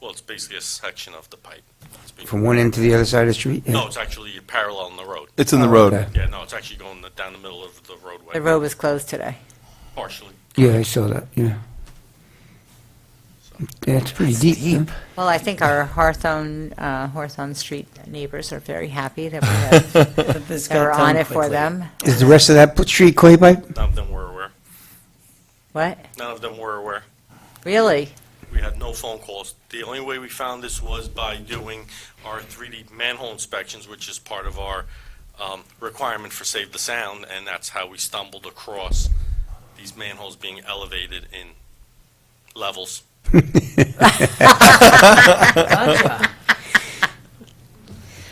Well, it's basically a section of the pipe. It's being- From one end to the other side of the street? No, it's actually parallel in the road. It's in the Oh, road. okay. Yeah, no, it's actually going the- down the middle of the roadway. The road was closed today. Partially. Yeah, I saw that, yeah. Yeah, it's pretty deep, huh? Well, I think our Hawthorne, uh, Hawthorne Street neighbors are very happy that we have- This that got we're done on it for quickly. them. Is the rest of that put- street clay pipe? None of them were aware. What? None of them were aware. Really? We had no phone calls. The only way we found this was by doing our 3D manhole inspections, which is part of our um, requirement for Save the Sound, and that's how we stumbled across these manholes being elevated in levels.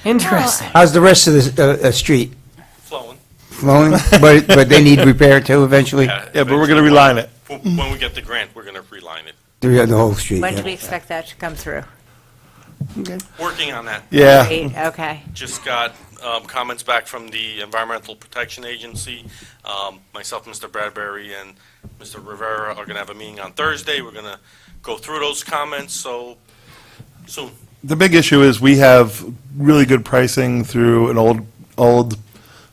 Interesting. How's the rest of the, uh, uh, street Flowing. flowing? But, but they need repair too eventually? Yeah, but we're going to reline it. When when we get the grant, we're going to reline it. The, the whole street, When do we yeah. expect that to come through? Working on that. Yeah. Eight, Okay. Just got um, comments back from the Environmental Protection Agency. Um, Myself, Mr. Bradbury, and Mr. Rivera are going to have a meeting on Thursday. We're going to go through those comments, so soon. The big issue is we have really good pricing through an old, old,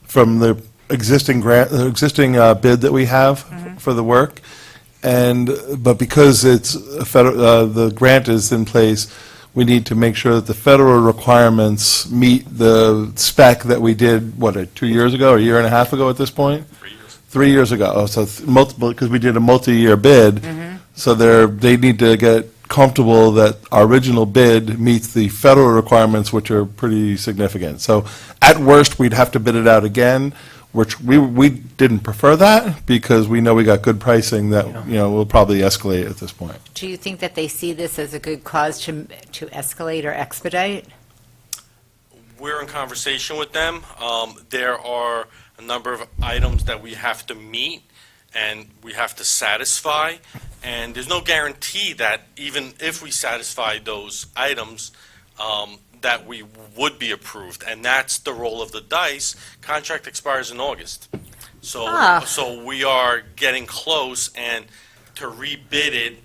from the existing grant, the existing uh, bid that we have for the work. And, but because it's a federal, uh, the grant is in place, we need to make sure that the federal requirements meet the spec that we did, what, uh, two years ago, a year and a half ago at this point? Three years. three years ago, Oh, so th- multiple, because we did a multi-year bid. So they're, they need to get comfortable that our original bid meets the federal requirements, which are pretty significant. So at worst, we'd have to bid it out again, which we, we didn't prefer that because we know we got good pricing that, you know, will probably escalate at this point. Do you think that they see this as a good cause to, to escalate or expedite? We're in conversation with them. Um, There are a number of items that we have to meet and we have to satisfy, and there's no guarantee that even if we satisfy those items, um, that we would be approved, and that's the roll of the dice. Contract expires in August. So, Ah. so we are getting close, and to rebid it,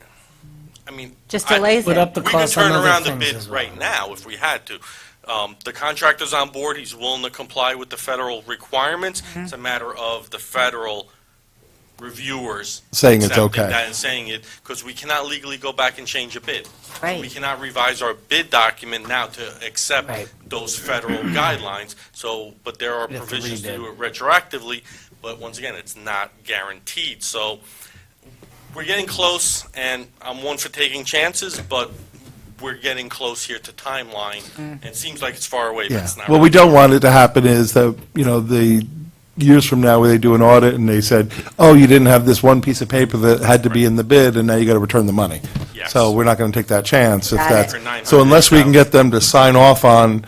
I mean, Just I- delays Put up it. the cost we on other could turn around things the bid as well. right now if we had to. Um, The contractor's on board, he's willing to comply with the federal requirements. Mm-hmm. It's a matter of the federal reviewers. Saying it's accepting okay. that And saying it, because we cannot legally go back and change a bid. We Right. cannot revise our bid document now to accept Right. those federal guidelines, so, but there are We'd have to provisions to rebid. do it retroactively, but once again, it's not guaranteed, so we're getting close, and I'm one for taking chances, but we're getting close here to timeline, and it seems like it's far away, but Yeah. it's not. What we don't want it to happen is that, you know, the years from now where they do an audit and they said, oh, you didn't have this one piece of paper that had to be in the bid and now you got to return the money. Yes. So we're not going to take that chance if Got it. that's, so unless we can $900,000. get them to sign off on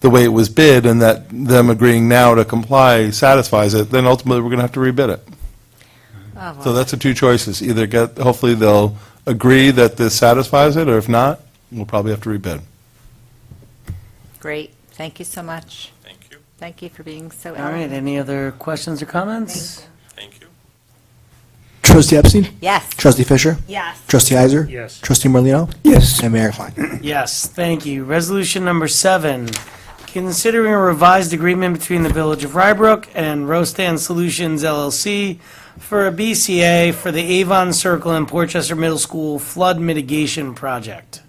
the way it was bid and that them agreeing now to comply satisfies it, then ultimately we're going to have to rebid it. Oh, So well. that's the two choices. Either get, hopefully they'll agree that this satisfies it or if not, we'll probably have to rebid. Great. Thank you so much. Thank you, Thank you for being so All right, eloquent. any other questions or comments? thank you. Trustee Epstein? Yes. Trustee Fisher? Yes. Trustee Heiser? Yes. Trustee Morlino, Yes, And Mayor Klein. Yes, thank you. Resolution number seven, considering a revised agreement between the Village of Rybrook and Rostand Solutions LLC for a BCA for the Avon Circle and Portchester Middle School flood mitigation project.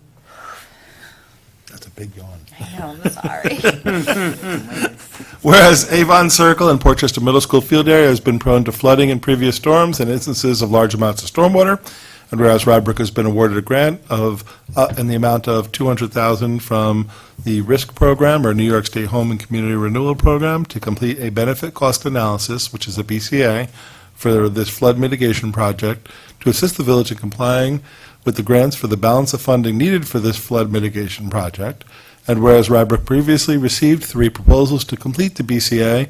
That's a big yawn. I'm sorry. Whereas Avon Circle and Portchester Middle School field area has been prone to flooding in previous storms and instances of large amounts of stormwater, and whereas Rybrook has been awarded a grant of, uh, in the amount of 200000 from the RISC program, or New York State Home and Community Renewal Program, to complete a benefit cost analysis, which is a BCA, for this flood mitigation project, to assist the village in complying with the grants for the balance of funding needed for this flood mitigation project, and whereas Rybrook previously received three proposals to complete the BCA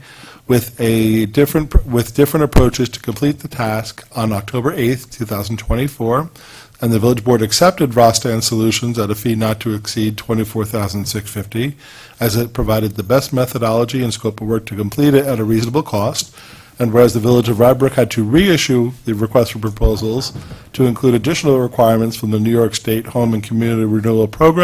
with a different, with different approaches to complete the task on October 8th, 2024, and the village board accepted Rostan Solutions at a fee not to exceed $24,650, as it provided the best methodology and scope of work to complete it at a reasonable cost, And whereas the Village of Rybrook had to reissue the request for proposals to include additional requirements from the New York State Home and Community Renewal Program